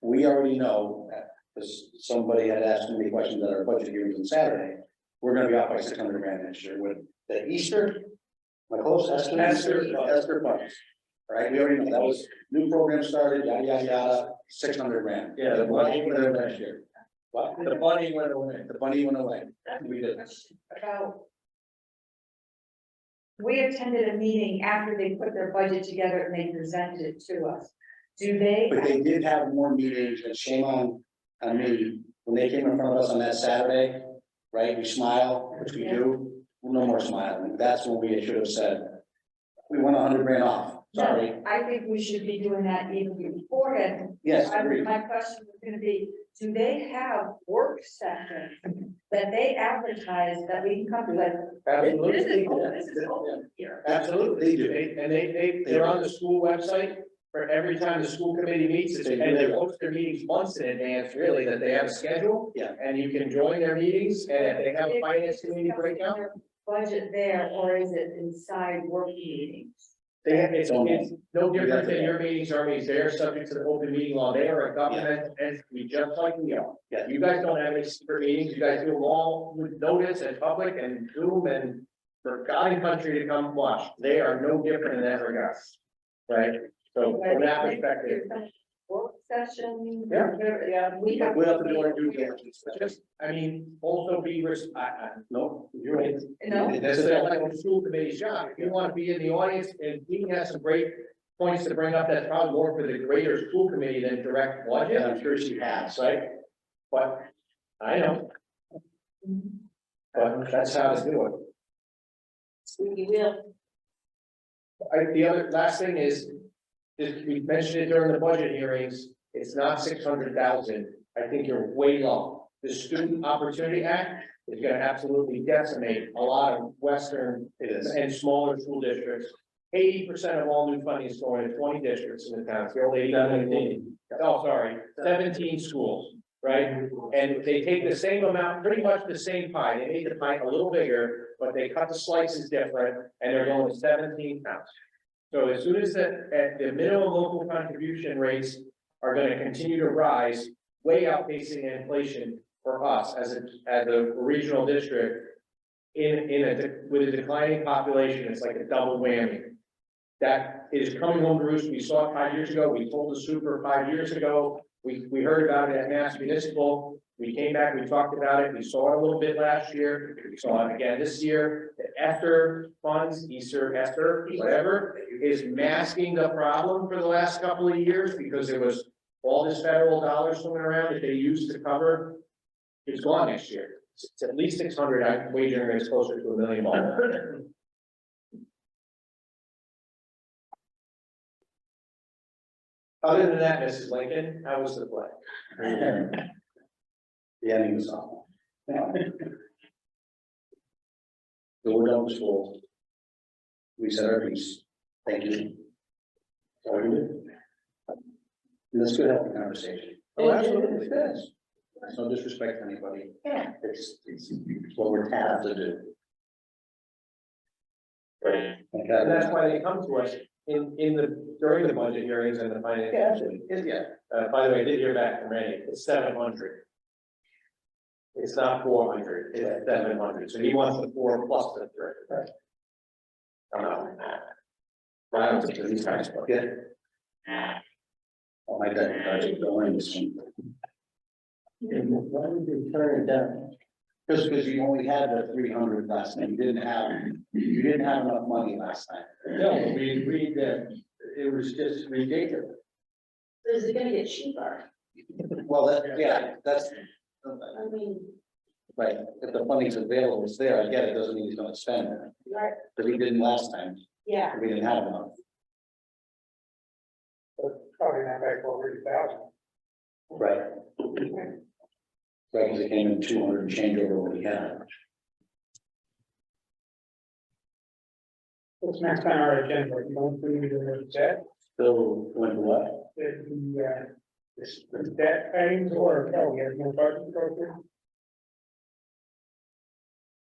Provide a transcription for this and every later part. we already know, because somebody had asked me questions at our budget hearings on Saturday. We're gonna be off by six hundred grand this year with the Easter. My close estimate. Esther funds. Esther funds. Right, we already know that was, new program started, yada, yada, yada, six hundred grand. Yeah, The the money money- went away last year. What? The money went away. The money went away. That's We a did. question about. We attended a meeting after they put their budget together and they presented it to us. Do they? But they did have more meetings, and shame on, on me, when they came in front of us on that Saturday, right, we smile, which we do, no more smiling, that's when we should have said. We went a hundred grand off, sorry, No, I think we should be doing that even beforehand. yes, I- agreed, My question was gonna be, do they have work sessions that they advertise that we can come to, like, this is, Absolutely. open- this is open here? absolutely, they do, They- And they, they, they're on the school website for every time the school committee meets, it's- and they post their meetings months in advance, really, that they have scheduled. Yeah. And you can join their meetings, and if they have a finance committee breakout, Budget there, or is it inside work meetings? they have, it's, it's no different than your meetings, our meetings, they're subject to the open meeting law, they are a government entity, just like we are. Yeah. You guys don't have any secret meetings, you guys do them all with notice and public and Zoom and for God and country to come watch, they are no different in that regard. Right, so from that perspective. Work session. Yeah. whatever, Yeah, we have. we have to do our due diligence, Just, I mean, also be, res- I, I, no, you're right. No, this is like a school committee's job, if you want to be in the audience, and Dean has some great points to bring up, that's probably more for the greater school committee than direct Yeah, budget, I'm sure she has, that's right? But, I know, but that's how it's doing. Mm-hmm. we will. I, the other, last thing is, is we mentioned it during the budget hearings, it's not six hundred thousand, I think you're way low. The Student Opportunity Act is gonna absolutely decimate a lot of western it is, and smaller school districts. Eighty percent of all new funding is going to twenty districts in the town, it's only seventeen, oh, sorry, seventeen schools, right? And they take the same amount, pretty much the same pie, they made the pie a little bigger, but they cut the slices different, and they're going to seventeen towns. So as soon as the, at the minimum local contribution rates are gonna continue to rise, way outpacing inflation for us as a, as a regional district, in, in a, de- with a declining population, it's like a double whammy. That is coming home to roost. We saw it five years ago. We told the super five years ago. We, we heard about it at Mass Municipal. We came back, we talked about it. We saw it a little bit last year. We saw it again this year. The Ether funds, Easter, Ether, whatever, is masking the problem for the last couple of years because it was all this federal dollars swimming around that they used to cover. It's gone next year. It's at least six hundred, I'm wagering it's closer to a million dollars. Other than that, Mrs. Lincoln, how was the play? the ending was awful. No. So we're done with school. We said our piece, thank you. Sorry, we- This could help the conversation. Oh, absolutely. Yes. There's no disrespect to anybody. Yeah. It's, it's it's what we're tasked to do. Like that. And that's why they come to us in, in the, during the budget hearings and the finance. Yeah, absolutely. Yeah, yeah. Uh, by the way, I did hear back from Randy, it's seven hundred. It's not four hundred, it's seven hundred, so he wants the four plus the three. I don't know. I don't think these guys, but Yeah. Oh, my God, I didn't go in this one. Why would you turn it down? Just because you only had the three hundred last night, you didn't have, you didn't have enough money last night. No, we agreed that it was just ridiculous. Is it gonna get cheaper? Well, that, yeah, that's, I mean, right, if the funding's available, it's there, I get it, doesn't mean he's gonna spend it, right, but he didn't last time, yeah, we didn't have enough. Probably not back over eight thousand. Right. Right, because it came in two hundred and change over what we had. What's next on our agenda? You want to do the debt, So, when what? the, uh, this, the debt payments or, no, we have no budget program?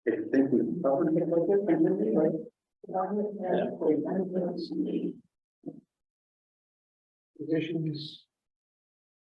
I think we probably make like this, right? Positions,